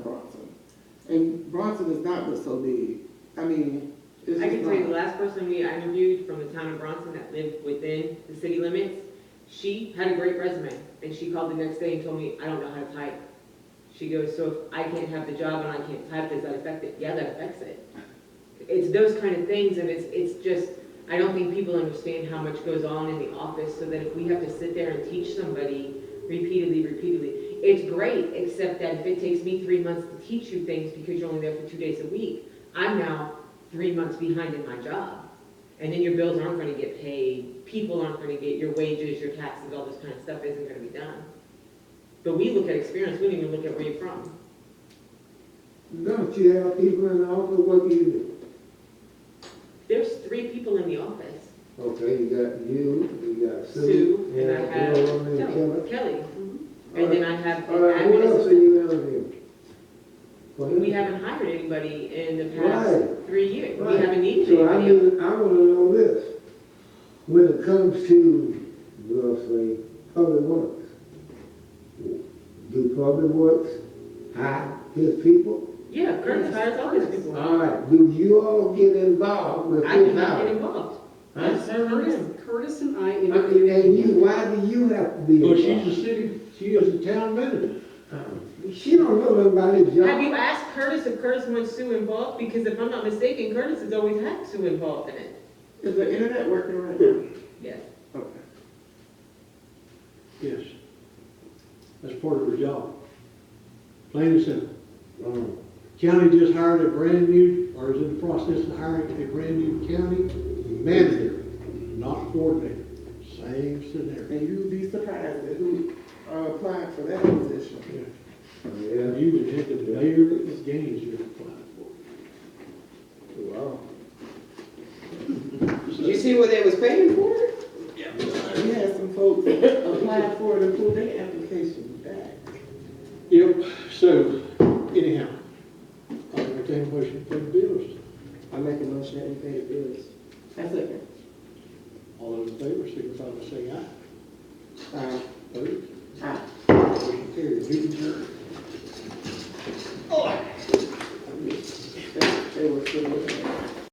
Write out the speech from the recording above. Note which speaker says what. Speaker 1: And Bronson is not what's so big. I mean, it's
Speaker 2: I can
Speaker 1: just
Speaker 2: tell you, the
Speaker 1: not.
Speaker 2: last person we I interviewed from the town of Bronson that lived within the city limits, she had a great resume, and she called the next day and told me, I don't know how to type. She goes, so if I can't have the job and I can't type, does that affect it? Yeah, that affects it. It's those kind of things, and it's, it's just, I don't think people understand how much goes on in the office, so that if we have to sit there and teach somebody repeatedly, repeatedly, it's great, except that if it takes me three months to teach you things because you're only there for two days a week, I'm now three months behind in my job. And then your bills aren't gonna get paid, people aren't gonna get your wages, your taxes, all this kind of stuff isn't gonna be done. But we look at experience, we don't even look at where you're from.
Speaker 3: Don't you have people in the office, what do you do?
Speaker 2: There's three people in the office,
Speaker 3: Okay, you got you, you got Sue.
Speaker 2: Sue, and I have
Speaker 3: You have a
Speaker 2: Kelly,
Speaker 3: woman named
Speaker 2: Kelly.
Speaker 3: All
Speaker 2: And then I have
Speaker 3: Kelly. All right, who else are
Speaker 2: administrative.
Speaker 3: you interviewing? Well,
Speaker 2: We haven't hired anybody in the past
Speaker 3: Right.
Speaker 2: three years, we
Speaker 3: Right.
Speaker 2: haven't needed
Speaker 3: So I
Speaker 2: anybody.
Speaker 3: wanna, I wanna know this. When it comes to, we'll say, public works, do public works hire his people?
Speaker 2: Yeah, Curtis hires all these people.
Speaker 3: All right, do you all get involved with
Speaker 2: Uh-huh. I did
Speaker 3: his
Speaker 2: not get
Speaker 3: hiring?
Speaker 2: involved.
Speaker 3: Huh?
Speaker 2: I served on him.
Speaker 4: Curtis and I
Speaker 3: I mean,
Speaker 4: interviewed,
Speaker 3: And you, why do you have to be
Speaker 5: Well,
Speaker 3: involved?
Speaker 5: she's the city, she is the town manager.
Speaker 3: She don't know nothing about this job.
Speaker 2: Have you asked Curtis if Curtis wants Sue involved? Because if I'm not mistaken, Curtis has always had Sue involved in it.
Speaker 1: Is the internet working right now?
Speaker 2: Yes.
Speaker 1: Okay.
Speaker 5: Yes. That's part of her job. Plain and simple.
Speaker 3: Mm.
Speaker 5: County just hired a brand new, or is in the process of hiring a brand new county manager, not coordinator. Same scenario.
Speaker 1: And you'd be surprised at who uh, applied for that position.
Speaker 5: Yeah.
Speaker 3: Yeah.
Speaker 5: You would hit the mayor of gains you're applying for.
Speaker 3: Wow.
Speaker 4: did you see what they was paying for?
Speaker 1: We had some folks apply for it and pull their application back.
Speaker 5: Yep, so anyhow, I'll entertain a motion for the bills.
Speaker 1: I make a motion that we pay the bills. I second.
Speaker 5: All those in favor, signify by saying aye.
Speaker 1: Aye.